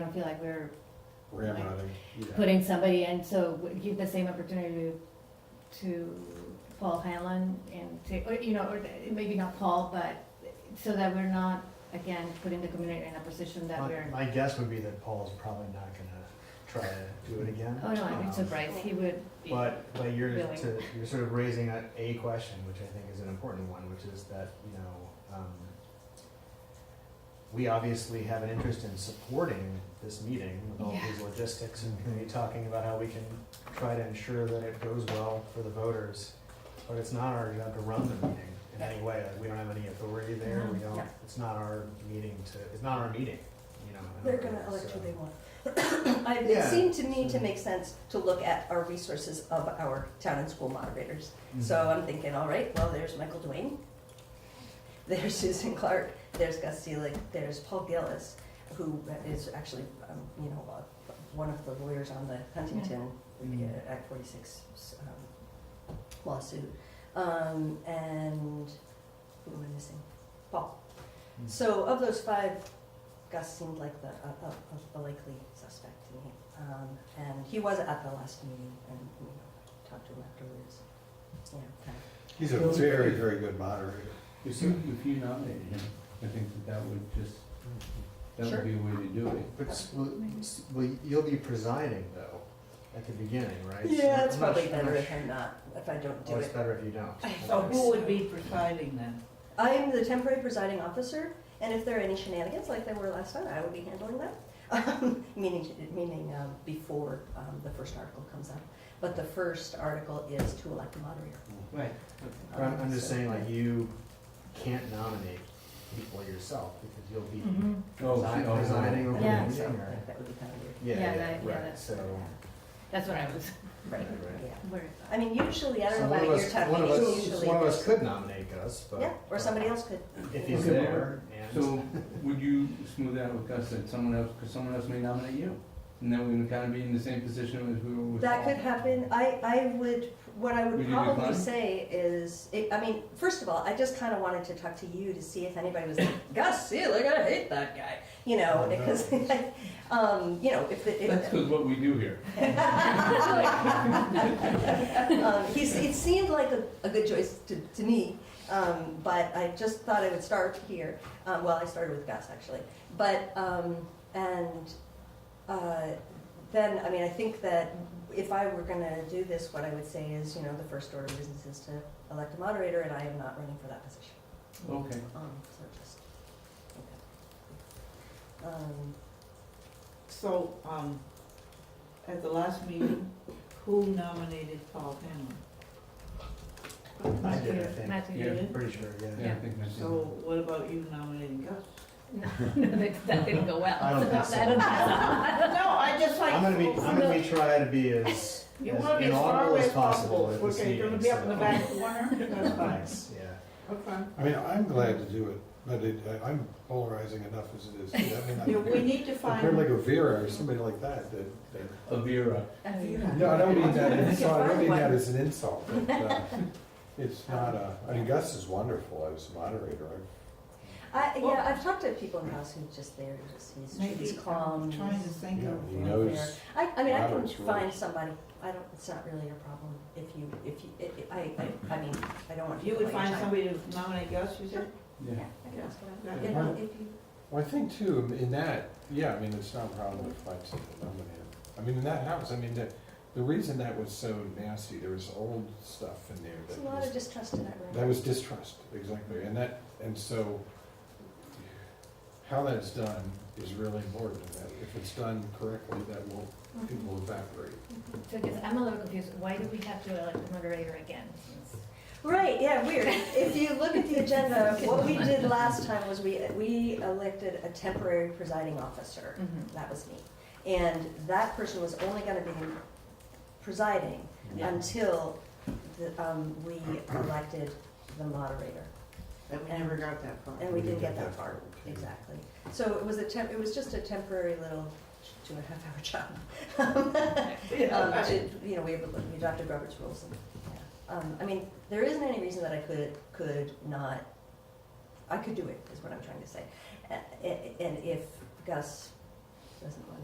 I don't feel like we're grandfather. yeah. putting somebody in, so we give the same opportunity to Paul Hanlon and to, or, you know, or maybe not Paul, but so that we're not, again, putting the community in a position that My, we're, my guess would be that Paul's probably not gonna try to do it again. oh no, I'm Um, surprised, he would be. But, but you're Really. to, you're sort of raising a, a question, which I think is an important one, which is that, you know, um, we obviously have an interest in supporting this meeting with all Yeah. these logistics and committee talking about how we can try to ensure that it goes well for the voters. But it's not our job to run the meeting in any way. Like, we don't have any authority there. We Mhm. don't, Yeah. it's not our meeting to, it's not our meeting, you know. in They're other gonna words, elect so- who they want. I- It Yeah. seemed to me to make sense to look at our resources of our town and school moderators. Mm-hmm. So I'm thinking, all right, well, there's Michael Duane, there's Susan Clark, there's Gus Seelig, there's Paul Gillis, who is actually, um, you know, uh, one of the lawyers on the Huntington Mhm. uh, Act 46 um, lawsuit. Um, And who am I missing? Paul. Mm. So of those five, Gus seemed like the, a- a- a a likely suspect to me. Um, And he was at the last meeting and, you know, talked to him afterwards. Yeah, kind of. He's a very, very good moderator. If you, if you nominated him, I think that that would just, that Sure. would be a way to do it. But, s- well, s- well, you'll be presiding though, at the beginning, right? So Yeah, it's I'm not probably sure- I'm better not if sure. I'm not, if I don't do Oh, it's it. better if you don't. I So felt- who would be presiding then? I am the temporary presiding officer, and if there are any shenanigans like there were last time, I will be handling that. Um, Meaning, meaning um, before um, the first article comes out. But the first article is to elect a moderator. Um, Right. But I'm, I'm just saying, like, you can't nominate people yourself, because you'll be Mhm. Oh, presi- oh, presiding over the Yeah. meeting, So or? that would be kind of weird. Yeah, Yeah, yeah, that- yeah, right, that's- so. That's what I was, Right, Right, right. yeah. worried I mean, usually, I so don't know one of about your us- town One of meetings, us, usually. one of us there's- could nominate Gus, but. Yeah, or somebody else could. If he's Okay. there, and, So would you smooth out with Gus that someone else, because someone else may nominate you? And then we would kind of be in the same position as we were with. That Paul. could happen. I, I would, what I Would would you probably decline? say is, it- I mean, first of all, I just kind of wanted to talk to you to see if anybody was like, Gus Seelig, I hate that guy, you know, Oh, no. because, um, you know, if, it- That's if, because what we do here. um, he's, it seemed like a, a good choice to, to me, um, but I just thought I would start here. Um, well, I started with Gus, actually. But, um, and, uh, then, I mean, I think that if I were gonna do this, what I would say is, you know, the first order of business is to elect a moderator, and I am not running for that position. Okay. Um, so just, okay. Um, So, um, at the last meeting, who nominated Paul Hanlon? I did, I Matthew- think. Matthew Yeah. did. pretty sure, Yeah, yeah. I think that's. So what about you nominating Gus? No, no, that, that didn't go well. I don't think so. I don't think No, I just like. I'm gonna be, I'm gonna be trying to be as, You wanna as be as far inaudible away as as possible possible. at this Okay, meeting. you're gonna be up in the so- back corner, that's fine, Thanks, yeah. okay. I mean, I'm glad to do it, but it, I- I'm polarizing enough as it is. I mean, Yeah, we I'm- need to I'm kind of like find, a Vera or somebody like that, that, that- A Vera. so. no, I don't mean that, as- I don't mean that as an insult, but, uh, it's not a, I mean, Gus is wonderful as a moderator. I- I, Well- yeah, I've talked to people in the house who just, they're just, he's, he's maybe, calm. I'm trying to he's- think You know, of. he Fair. knows, I, I mean, I can Robert's find rules. somebody, I don't, it's not really a problem if you, if you, it- it- I, I, I mean, I don't want You you would to find somebody. somebody to nominate Gus, you said? Yeah. I can ask about it. Yeah. You know, if you, well, I think too, in that, yeah, I mean, it's not a problem to find someone nominated. I mean, in that house, I mean, the, the reason that was so nasty, there was old stuff in there there's that a was lot of distrust in that room. That was distrust, exactly, and that, and so, how that's done is really important, and that if it's done correctly, that will, it will evaporate. So, because I'm a little confused, why do we have to elect the moderator again? Right, yeah, weird. If you look at the agenda, what we did last time was we, we elected a temporary presiding officer. Mm-hmm. That was me. And that person was only gonna be presiding Mm-hmm. Yeah. until the, um, we elected the moderator. And we never got that far. And we didn't get that far, exactly. So it was a temp, it was just a temporary little two and a half hour job. Um, Yeah. to- You know, we have, we adopted Robert's rules and, yeah. Um, I mean, there isn't any reason that I could, could not, I could do it, is what I'm trying to say. A- a- And if Gus doesn't want